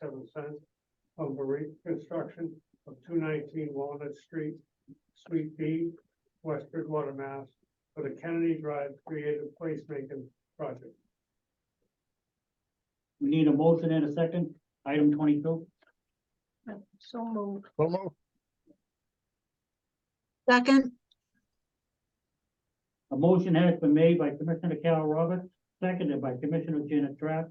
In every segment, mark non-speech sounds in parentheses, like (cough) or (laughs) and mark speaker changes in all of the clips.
Speaker 1: seven cents from the reconstruction of two nineteen Walnut Street, Suite B, West Bridgewater, Mass. For the Kennedy Drive Creative Placemaking Project.
Speaker 2: We need a motion and a second, item twenty-two.
Speaker 3: So moved.
Speaker 4: So moved.
Speaker 5: Second,
Speaker 2: A motion has been made by Commissioner Carol Roberts, seconded by Commissioner Janet Trapp.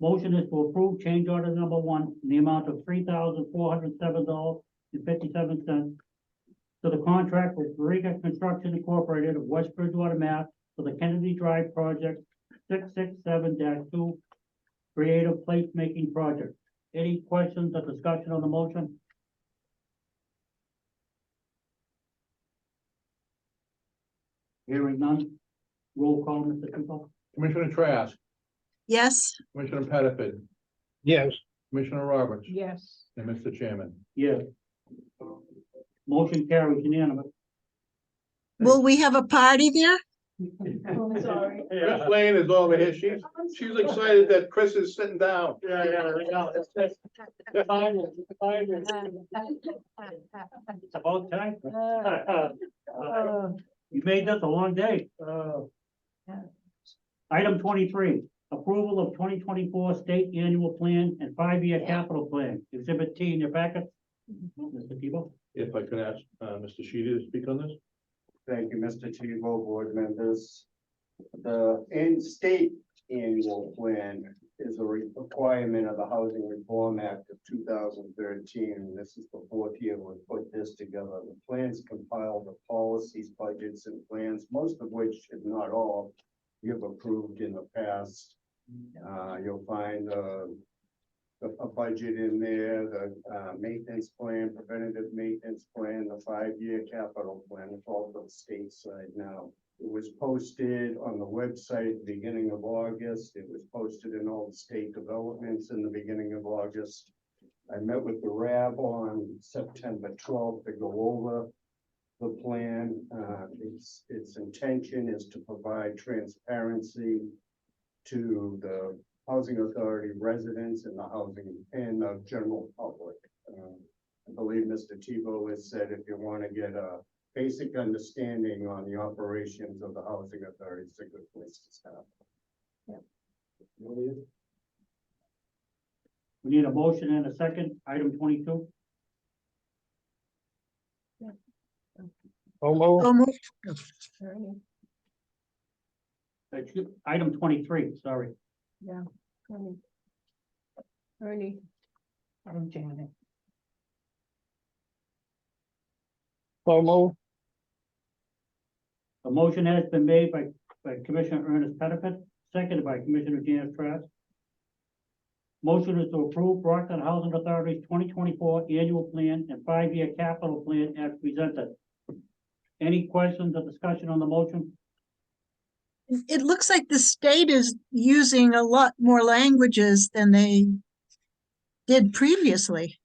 Speaker 2: Motion is to approve change order number one in the amount of three thousand four hundred seven dollars and fifty-seven cents to the contract with Riga Construction Incorporated of West Bridgewater, Mass. for the Kennedy Drive Project six-six-seven two Creative Placemaking Project. Any questions or discussion on the motion? Hearing none. Roll call, Mr. Tupel.
Speaker 6: Commissioner Trask,
Speaker 5: yes,
Speaker 6: Commissioner Pettiford,
Speaker 4: Yes,
Speaker 6: Commissioner Roberts,
Speaker 3: Yes.
Speaker 6: and Mr. Chairman.
Speaker 2: Yes. Motion carries unanimous.
Speaker 5: will we have a party there?
Speaker 3: (laughs)
Speaker 1: (laughs)
Speaker 3: I'm sorry.
Speaker 6: Chris Lane is over here. She's, she's excited that Chris is sitting down.
Speaker 1: Yeah, yeah,
Speaker 3: (laughs)
Speaker 2: It's about time.
Speaker 3: Uh,
Speaker 2: (laughs) You made this a long day. Item twenty-three, approval of twenty twenty-four state annual plan and five-year capital plan, exhibit T in your packet.
Speaker 3: Mm-hmm.
Speaker 2: Mr. Tebow?
Speaker 6: If I could ask, uh, Mr. Sheedy to speak on this?
Speaker 7: Thank you, Mr. Tebow, board members. The in state annual plan is a requirement of the Housing Reform Act of two thousand thirteen. This is the fourth year we put this together. The plans compile the policies, budgets and plans, most of which, if not all, you have approved in the past. Uh, you'll find, uh, a, a budget in there, the, uh, maintenance plan, preventative maintenance plan, the five-year capital plan, it's all for the state side now. It was posted on the website beginning of August, it was posted in all the state developments in the beginning of August. I met with the RAB on September twelfth to go over the plan, uh, its, its intention is to provide transparency to the housing authority residents and the housing and the general public. Um, I believe Mr. Tebow has said if you want to get a basic understanding on the operations of the housing authority, it's a good place to start.
Speaker 2: We need a motion and a second, item twenty-two.
Speaker 4: so moved.
Speaker 5: So moved,
Speaker 3: Um,
Speaker 2: uh, Excuse- Item twenty-three, sorry.
Speaker 3: Ernie. I'm Janet.
Speaker 4: so moved.
Speaker 2: A motion has been made by, by Commissioner Ernest Pettifat, seconded by Commissioner Janet Trask. Motion is to approve Brockton Housing Authority's twenty twenty-four annual plan and five-year capital plan as presented. Any questions or discussion on the motion?
Speaker 5: It- it looks like the state is using a lot more languages than they did previously.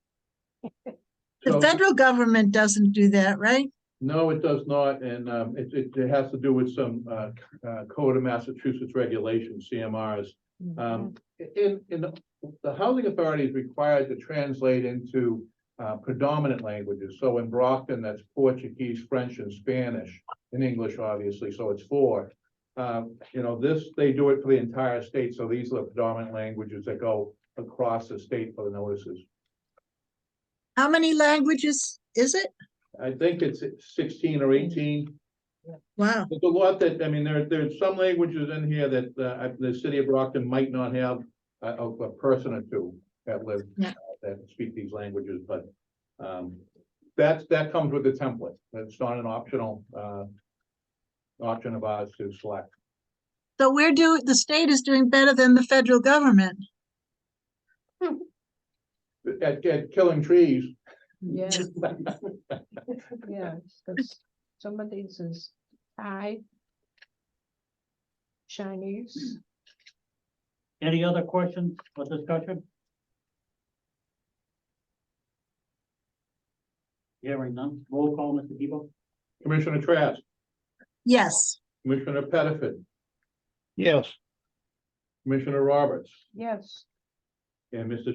Speaker 5: The
Speaker 6: So-
Speaker 5: federal government doesn't do that, right?
Speaker 6: No, it does not, and um, it, it, it has to do with some uh, c- uh, Code of Massachusetts regulations, CMRs. Um, in, in, the- the housing authority is required to translate into uh, predominant languages. So in Brockton, that's Portuguese, French, and Spanish, and English, obviously, so it's four. Um, you know, this, they do it for the entire state, so these are the predominant languages that go across the state for the notices.
Speaker 5: How many languages is it?
Speaker 6: I think it's sixteen or eighteen.
Speaker 5: Wow,
Speaker 6: There's a lot that, I mean, there, there's some languages in here that, uh, the city of Brockton might not have a, a, a person or two that live, uh,
Speaker 5: Yeah.
Speaker 6: that speak these languages, but, um, that's, that comes with the template. That's not an optional, uh, option of ours to select.
Speaker 5: so we're doing, the state is doing better than the federal government.
Speaker 6: At, at killing trees,
Speaker 3: Yeah. Yeah, because some of these is Thai. Chinese.
Speaker 2: Any other questions or discussion? Hearing none, roll call, Mr. Tebow?
Speaker 6: Commissioner Trask,
Speaker 5: Yes,
Speaker 6: Commissioner Pettiford,
Speaker 4: Yes.
Speaker 6: Commissioner Roberts,
Speaker 3: Yes.
Speaker 6: and Mr.